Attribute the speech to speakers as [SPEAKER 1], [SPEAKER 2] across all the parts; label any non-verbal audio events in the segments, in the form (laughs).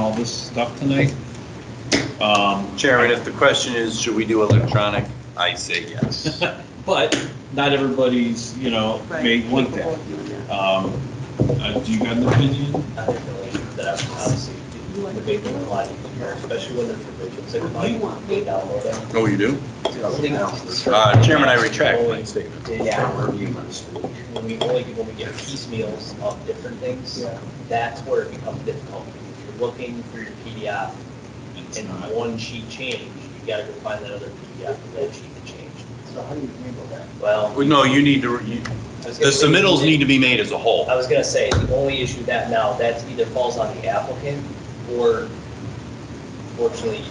[SPEAKER 1] all this stuff tonight. Um, (laughs)
[SPEAKER 2] Chairman, if the question is, should we do electronic, I say yes.
[SPEAKER 1] But not everybody's, you know, may want that. Um, uh, Do you got an opinion?
[SPEAKER 3] other donations that I've obviously, the big one, a lot of here, especially when they're provisions, like, oh, you want, they download it.
[SPEAKER 2] Oh, you do?
[SPEAKER 3] Things-
[SPEAKER 2] Uh, Chairman, I retract my
[SPEAKER 3] Did that review. When we only, when we get piecemeals of different things, that's where it becomes difficult. If you're looking through your PDF
[SPEAKER 1] It's
[SPEAKER 3] and
[SPEAKER 1] not-
[SPEAKER 3] one sheet changed, you gotta go find that other PDF and that sheet that changed. So how do you handle that? Well.
[SPEAKER 2] Well, No, you need to, you-
[SPEAKER 3] I was
[SPEAKER 2] the
[SPEAKER 3] gonna say-
[SPEAKER 2] submittals need to be made as a whole.
[SPEAKER 3] I was gonna say, the only issue that now, that either falls on the applicant, or fortunately,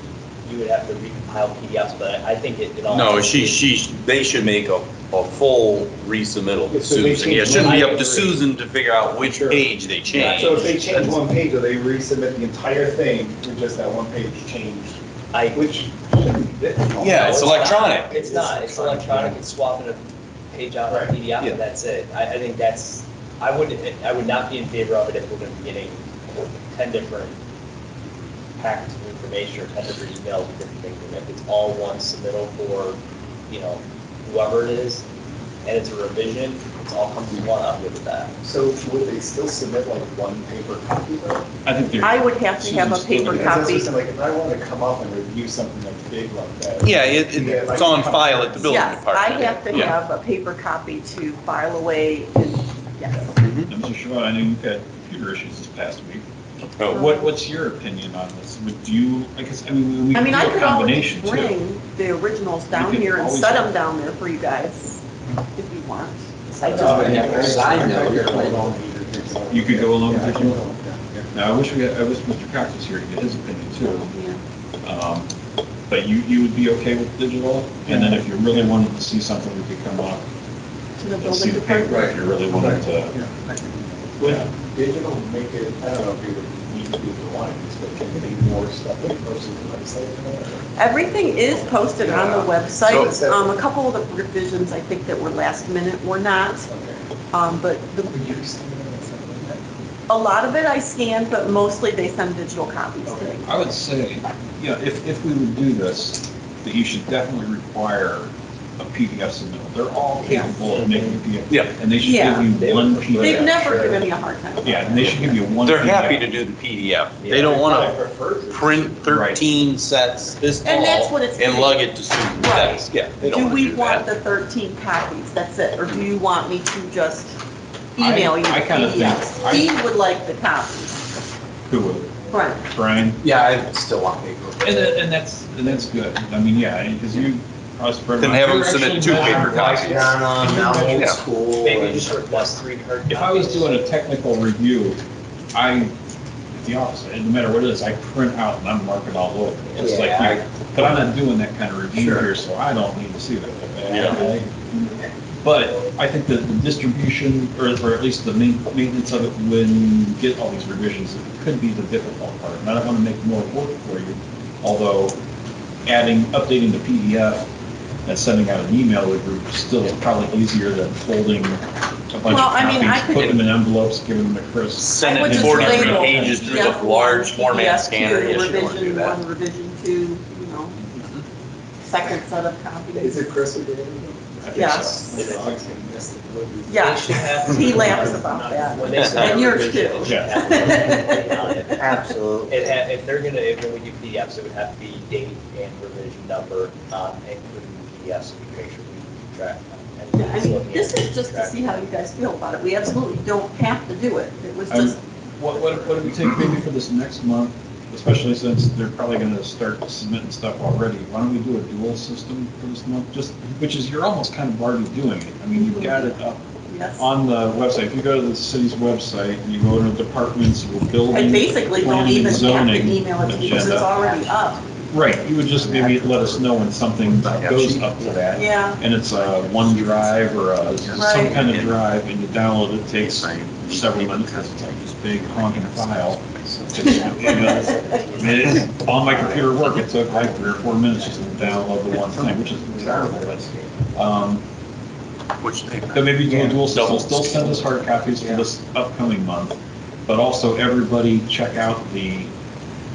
[SPEAKER 3] you would have to recompile PDFs, but I think it, it all.
[SPEAKER 2] No, she, she, they should make a, a full resubmittal to
[SPEAKER 4] If they
[SPEAKER 2] Susan. Yeah, it
[SPEAKER 4] change
[SPEAKER 2] shouldn't be
[SPEAKER 3] one-
[SPEAKER 2] up to Susan to figure out which
[SPEAKER 4] Sure.
[SPEAKER 2] page they changed.
[SPEAKER 4] So if they change one page, do they resubmit the entire thing with just that one page changed?
[SPEAKER 3] I,
[SPEAKER 4] Which shouldn't be difficult.
[SPEAKER 2] Yeah, it's
[SPEAKER 3] not.
[SPEAKER 2] electronic.
[SPEAKER 3] It's not, it's electronic, it's swapping a page out of
[SPEAKER 4] Right.
[SPEAKER 3] PDF,
[SPEAKER 2] Yeah.
[SPEAKER 3] and that's it. I, I think that's, I would, I would not be in favor of it if we're gonna be getting ten different packets of information, or ten different emails, with different things, and if it's all one submittal for, you know, whoever it is, and it's a revision, it's all comes in one, I'm good with that.
[SPEAKER 4] So would they still submit like one paper copy though?
[SPEAKER 1] I think they're.
[SPEAKER 5] I would have to have a paper
[SPEAKER 4] Because that's what I'm
[SPEAKER 5] copy.
[SPEAKER 4] saying, Like, if I wanted to come up and review something that's big like that.
[SPEAKER 2] Yeah, it, it-
[SPEAKER 4] Yeah, like-
[SPEAKER 2] it's on file at the building
[SPEAKER 5] Yes, I
[SPEAKER 2] department.
[SPEAKER 5] have to
[SPEAKER 2] Yeah.
[SPEAKER 5] have a paper copy to file away, and, yes.
[SPEAKER 2] Mm-hmm.
[SPEAKER 1] Mr. Shaw, I know you've had computer issues this past week. But
[SPEAKER 2] Oh,
[SPEAKER 1] what, what's your opinion on this? Would you, I guess, I mean, we
[SPEAKER 5] Uh-huh. I
[SPEAKER 1] we
[SPEAKER 5] mean,
[SPEAKER 1] do
[SPEAKER 5] I
[SPEAKER 1] a
[SPEAKER 5] could always
[SPEAKER 1] combination too.
[SPEAKER 5] bring the originals
[SPEAKER 1] We
[SPEAKER 5] down
[SPEAKER 1] could
[SPEAKER 5] here and
[SPEAKER 1] always-
[SPEAKER 5] set them down there for you guys, if you want. I
[SPEAKER 4] Uh,
[SPEAKER 5] just-
[SPEAKER 4] yeah, I-
[SPEAKER 6] Sign though, you're
[SPEAKER 4] like-
[SPEAKER 1] You could go along with
[SPEAKER 4] Yeah, I
[SPEAKER 1] it.
[SPEAKER 4] can go along with that.
[SPEAKER 1] Now, I wish we had, I wish Mr. Cox was here to get his opinion too.
[SPEAKER 5] Yeah.
[SPEAKER 1] Um, But you, you would be okay with digital? And then if you really wanted to see something, we could come up
[SPEAKER 5] To the
[SPEAKER 1] and see
[SPEAKER 5] building
[SPEAKER 1] the paper
[SPEAKER 5] department.
[SPEAKER 1] if you really wanted to.
[SPEAKER 4] Would digital make it, I don't know if you would need to do the lines, but can it be more stuff in person than website?
[SPEAKER 5] Everything is posted on the
[SPEAKER 4] Yeah.
[SPEAKER 5] website.
[SPEAKER 4] So-
[SPEAKER 5] Um, a couple of the revisions, I think that were last minute, were not, um, but the
[SPEAKER 4] Would you send it on something like
[SPEAKER 5] A lot of it I scan, but mostly they send digital copies to me.
[SPEAKER 1] I would say, you know, if, if we would do this, that you should definitely require a PDF submittal. They're all capable of making a PDF.
[SPEAKER 2] Yeah.
[SPEAKER 1] And they should give you one
[SPEAKER 5] They've
[SPEAKER 1] PDF.
[SPEAKER 5] never given me a hard time. about
[SPEAKER 1] Yeah, and
[SPEAKER 5] that.
[SPEAKER 1] they should give you one.
[SPEAKER 2] They're happy
[SPEAKER 1] PDF.
[SPEAKER 2] to do the PDF. They don't want to print 13 sets this
[SPEAKER 5] And that's
[SPEAKER 2] tall
[SPEAKER 5] what it's-
[SPEAKER 2] and lug it to Susan's
[SPEAKER 5] Right.
[SPEAKER 2] desk. Yeah, they don't
[SPEAKER 5] Do
[SPEAKER 2] want to
[SPEAKER 5] we
[SPEAKER 2] do
[SPEAKER 5] want
[SPEAKER 2] that.
[SPEAKER 5] the 13 copies? That's it? Or do you want me to just email you the
[SPEAKER 1] I- I kinda think-
[SPEAKER 5] PDFs?
[SPEAKER 1] I-
[SPEAKER 5] Steve would like the copies.
[SPEAKER 1] Who would?
[SPEAKER 5] Right.
[SPEAKER 1] Brian?
[SPEAKER 6] Yeah, I still want paper.
[SPEAKER 1] And, that- and that's, and that's good. I mean, yeah, because you cross.
[SPEAKER 2] Then have them submit two paper copies.
[SPEAKER 6] now
[SPEAKER 2] Yeah.
[SPEAKER 6] old school.
[SPEAKER 3] Maybe
[SPEAKER 6] and-
[SPEAKER 3] just request three hard
[SPEAKER 1] If I was
[SPEAKER 3] copies.
[SPEAKER 1] doing a technical review, I, at the office, it doesn't matter what it is, I print out and I'm marking all over. It's like,
[SPEAKER 6] Yeah,
[SPEAKER 1] you- but I'm not doing that kind of review here, so I don't need to see that.
[SPEAKER 2] Yeah.
[SPEAKER 1] But I think that the distribution, or, or at least the main- maintenance of it when you get all these revisions, it could be the difficult part. And I don't want to make more work for you, although adding, updating the PDF and sending out an email to the group is still probably easier than folding a bunch
[SPEAKER 5] Well,
[SPEAKER 1] of
[SPEAKER 5] I mean, I
[SPEAKER 1] copies,
[SPEAKER 5] could-
[SPEAKER 1] putting them in envelopes, giving them to Chris.
[SPEAKER 2] Send
[SPEAKER 5] I would
[SPEAKER 2] it
[SPEAKER 5] just
[SPEAKER 2] 43
[SPEAKER 5] label
[SPEAKER 2] pages through the
[SPEAKER 5] PDF
[SPEAKER 2] large
[SPEAKER 5] one,
[SPEAKER 2] format
[SPEAKER 5] PDF
[SPEAKER 2] scanner.
[SPEAKER 5] two,
[SPEAKER 2] Yes, you don't want to do
[SPEAKER 5] Revision
[SPEAKER 2] that.
[SPEAKER 5] one, revision two, you know, second set of
[SPEAKER 4] that? Is
[SPEAKER 5] copies.
[SPEAKER 4] it Chris who did it?
[SPEAKER 1] I think so.
[SPEAKER 5] Yes.
[SPEAKER 4] I was gonna miss it.
[SPEAKER 3] They
[SPEAKER 5] Yeah,
[SPEAKER 3] should have-
[SPEAKER 5] (laughs) he laughs about that.
[SPEAKER 3] When they send
[SPEAKER 5] And
[SPEAKER 3] out
[SPEAKER 5] yours
[SPEAKER 3] revision,
[SPEAKER 5] too.
[SPEAKER 3] it should have everything on it.
[SPEAKER 6] Absolutely.
[SPEAKER 3] It ha if they're gonna, if when we do PDFs, it would have to be date and revision number, um, including the PDFs, so we can make sure we keep track. of them.
[SPEAKER 5] I mean, (laughs) this is just to see how you guys feel about it. We absolutely don't have to do it. It was
[SPEAKER 1] I'm-
[SPEAKER 5] just,
[SPEAKER 1] What, what, what do we take maybe for this next month, especially since they're probably gonna start submitting stuff already? Why don't we do a dual system for this month, just, which is, you're almost kind of already doing it. I mean, you've got it up
[SPEAKER 5] yes.
[SPEAKER 1] on the website. If you go to the city's website and you go to departments, you will build.
[SPEAKER 5] I basically don't
[SPEAKER 1] planning,
[SPEAKER 5] even have to
[SPEAKER 1] zoning
[SPEAKER 5] email it to you because it's
[SPEAKER 1] agenda.
[SPEAKER 5] already up.
[SPEAKER 1] Right, you would just maybe let us know when something goes up to that.
[SPEAKER 5] Yeah,
[SPEAKER 1] And it's a OneDrive or a, some
[SPEAKER 5] Right.
[SPEAKER 1] kind of drive, and you download it, takes several minutes, because it's like this big honking file.
[SPEAKER 5] (laughs)
[SPEAKER 1] I mean, it's On my computer work, it took like three or four minutes just to download the one thing, which is terrible, but, um,
[SPEAKER 2] Which they-
[SPEAKER 1] but maybe do a dual system,
[SPEAKER 2] Double.
[SPEAKER 1] still send us hard copies for this upcoming month, but also everybody check out the